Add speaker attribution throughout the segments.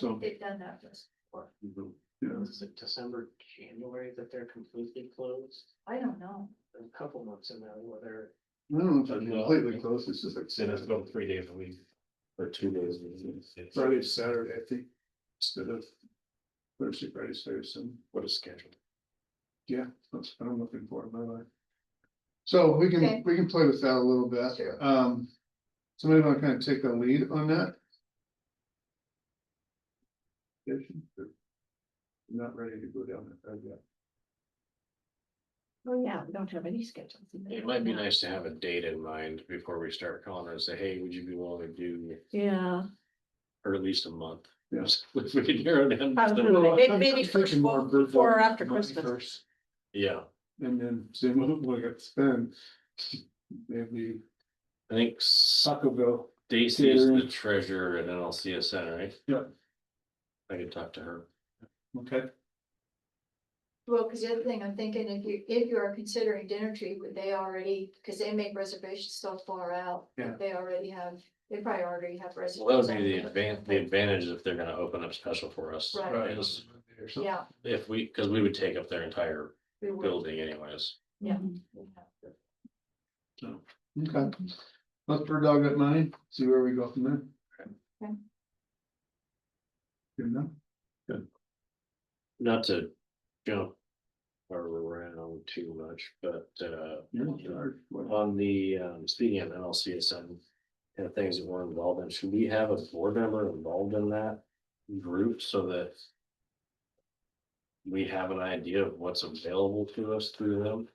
Speaker 1: So,
Speaker 2: They've done that just before.
Speaker 1: yeah,
Speaker 3: Is it December, January that they're completely closed?
Speaker 2: I don't know.
Speaker 3: There's A couple months in there where they're.
Speaker 1: I don't know if I'm completely close, it's just like
Speaker 4: Say that's
Speaker 1: Saturday,
Speaker 4: about three days a week or two days. a week. It's-
Speaker 1: Friday, to Saturday, I think, instead of Thursday, Friday, Saturday, Sunday.
Speaker 4: What a schedule.
Speaker 1: Yeah, that's what I'm looking for in my life. So we can,
Speaker 2: Okay.
Speaker 1: we can play with that a little bit.
Speaker 2: Sure.
Speaker 1: Um, somebody wanna kind of take the lead on that? Jason, or- I'm Not ready to go down that road yet.
Speaker 2: Well, yeah, we don't have any schedules.
Speaker 4: It might be nice to have a date in mind before we start calling her and say, hey, would you be willing to do,
Speaker 2: Yeah.
Speaker 4: or at least a month?
Speaker 1: Yes.
Speaker 4: If we can narrow down.
Speaker 2: I was
Speaker 4: the-
Speaker 2: gonna- Maybe-
Speaker 1: I'm- I'm
Speaker 2: maybe
Speaker 1: thinking
Speaker 2: first
Speaker 1: more
Speaker 2: of-
Speaker 1: Virgo
Speaker 2: before or after
Speaker 1: money
Speaker 2: Christmas.
Speaker 1: first,
Speaker 4: Yeah,
Speaker 1: And then see what we got to spend. Maybe
Speaker 4: I think s-
Speaker 1: Sacaville.
Speaker 4: Stacy is the
Speaker 1: Karen.
Speaker 4: treasurer at NLCSN, right?
Speaker 1: Yeah.
Speaker 4: I could talk to her.
Speaker 1: Okay.
Speaker 2: Well, because the other thing I'm thinking, if you, if you are considering dinner tree, would they already, because they make reservations so far out.
Speaker 1: Yeah.
Speaker 2: They already have, they probably already have reservations.
Speaker 4: Well, that would be the
Speaker 2: on
Speaker 4: advan- the advantage if they're gonna open up special for us.
Speaker 2: Right.
Speaker 1: Right.
Speaker 4: Is
Speaker 1: Or something.
Speaker 2: Yeah.
Speaker 4: If we, cause we would take up their entire
Speaker 2: we would,
Speaker 4: building anyways.
Speaker 2: Yeah.
Speaker 1: Okay, let's bird dog that money, see where we go from there.
Speaker 2: Okay.
Speaker 1: Good enough?
Speaker 4: Not to jump around too much, but uh,
Speaker 1: You're in charge. What-
Speaker 4: on the, um, speaking of NLCSN. And the things that we're involved in, should we have a board member involved in that group so that? We have an idea of what's available to us through them?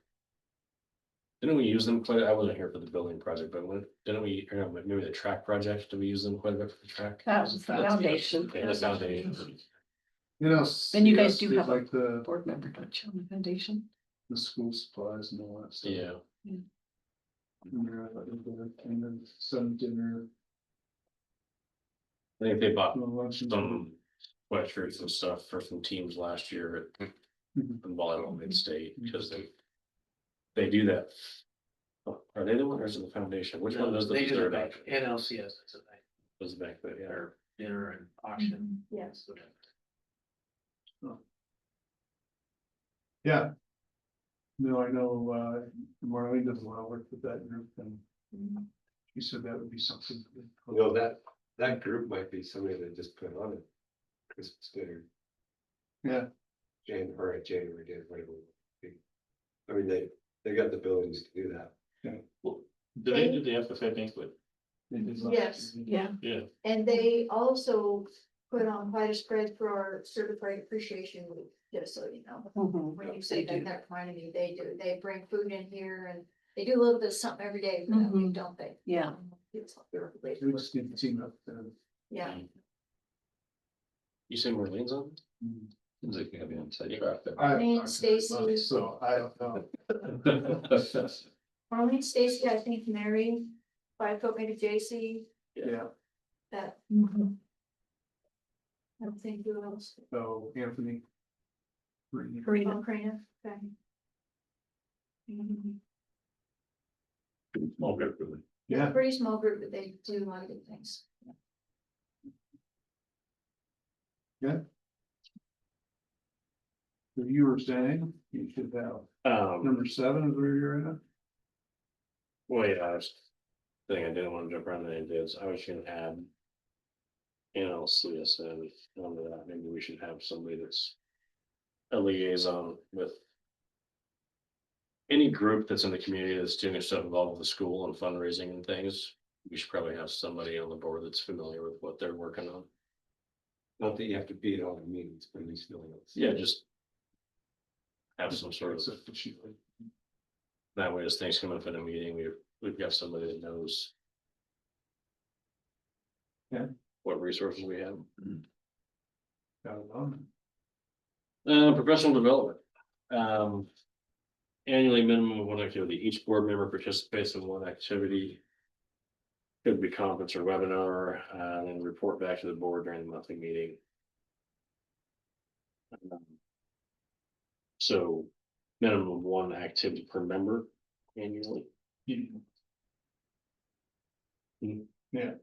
Speaker 4: Didn't we use them quite, I wasn't here for the building project, but when, didn't we, or no, maybe the track project, did we use them quite a bit for the track?
Speaker 5: That was the foundation.
Speaker 4: Yeah, the foundation.
Speaker 1: You know.
Speaker 5: And you
Speaker 1: CS
Speaker 5: guys do
Speaker 1: did
Speaker 5: have a-
Speaker 1: Like the,
Speaker 5: Board member, don't you, on the foundation?
Speaker 1: the school supplies and all that stuff.
Speaker 4: Yeah,
Speaker 1: And they're like, and then some dinner,
Speaker 4: I think they bought
Speaker 1: lunch. and-
Speaker 4: some sweatshirts and stuff for some teams last year at
Speaker 1: Mhm.
Speaker 4: the volleyball mid-state, because they. They do that. Oh, Are they the one or is it the foundation? Which one does the
Speaker 3: They do
Speaker 4: third
Speaker 3: back-
Speaker 4: option?
Speaker 3: NLCS, it's a night
Speaker 4: Does the back, but yeah,
Speaker 3: dinner, dinner and
Speaker 2: Mm-hmm.
Speaker 3: auction.
Speaker 2: Yes.
Speaker 3: whatever.
Speaker 1: Yeah. No, I know, uh, Marlene does a lot of work with that group and
Speaker 2: Mhm.
Speaker 1: she said that would be something.
Speaker 6: You know, that, that group might be somebody that just put on a Christmas dinner.
Speaker 1: Yeah.
Speaker 6: Jan, or a January dinner, whatever. it would be. I mean, they, they got the abilities to do that.
Speaker 4: do they do the FFA banquet?
Speaker 1: They did last
Speaker 2: Yes.
Speaker 1: year.
Speaker 5: Yeah.
Speaker 4: Yeah,
Speaker 2: And they also put on quite a spread for our certified appreciation week, just so you know.
Speaker 5: Mm-hmm.
Speaker 2: When you say
Speaker 5: They
Speaker 2: that,
Speaker 5: do.
Speaker 2: that reminded me, they do, they bring food in here and they do a little bit of something every day, for
Speaker 5: Mm-hmm.
Speaker 2: that week, don't they?
Speaker 5: Yeah.
Speaker 2: It's all their related-
Speaker 1: We just need to team up and.
Speaker 2: Yeah,
Speaker 4: you say Marlene's on? Seems like have on
Speaker 1: I-
Speaker 2: Lane, Stacy.
Speaker 1: So I don't know.
Speaker 2: Marlene, Stacy, I think Mary, five foot maybe J.C.
Speaker 1: Yeah,
Speaker 2: that,
Speaker 5: Mm-hmm.
Speaker 2: I don't think who else,
Speaker 1: so Anthony. Green.
Speaker 5: Karina, Mm-hmm.
Speaker 2: Oh, Karina, okay. Mhm.
Speaker 4: Small group, really.
Speaker 1: Yeah,
Speaker 2: Pretty small group, but they do a lot of good things.
Speaker 1: so you were saying you should have
Speaker 4: Um,
Speaker 1: number seven is where you're at.
Speaker 4: well, yeah, I was, thing I didn't want to jump around the ideas, I was gonna add. NLCSN, under that, maybe we should have somebody that's. A liaison with. Any group that's in the community that's doing stuff involved with the school and fundraising and things, we should probably have somebody on the board that's familiar with what they're working on.
Speaker 6: Not that you have to be at all the meetings, but at least know what's.
Speaker 4: Yeah, just. Have some sort of,
Speaker 1: Except for she-
Speaker 4: that way as things come up in a meeting, we've, we've got somebody that knows.
Speaker 1: Yeah.
Speaker 4: What resources we have.
Speaker 1: Got it on.
Speaker 4: Uh, professional development. Um. Annually minimum of one activity. Each board member participates in one activity. Could be conference or webinar, uh, and then report back to the board during the monthly meeting. Um, So minimum of one activity per member annually.
Speaker 1: Yeah.
Speaker 4: Hmm.
Speaker 1: Yeah,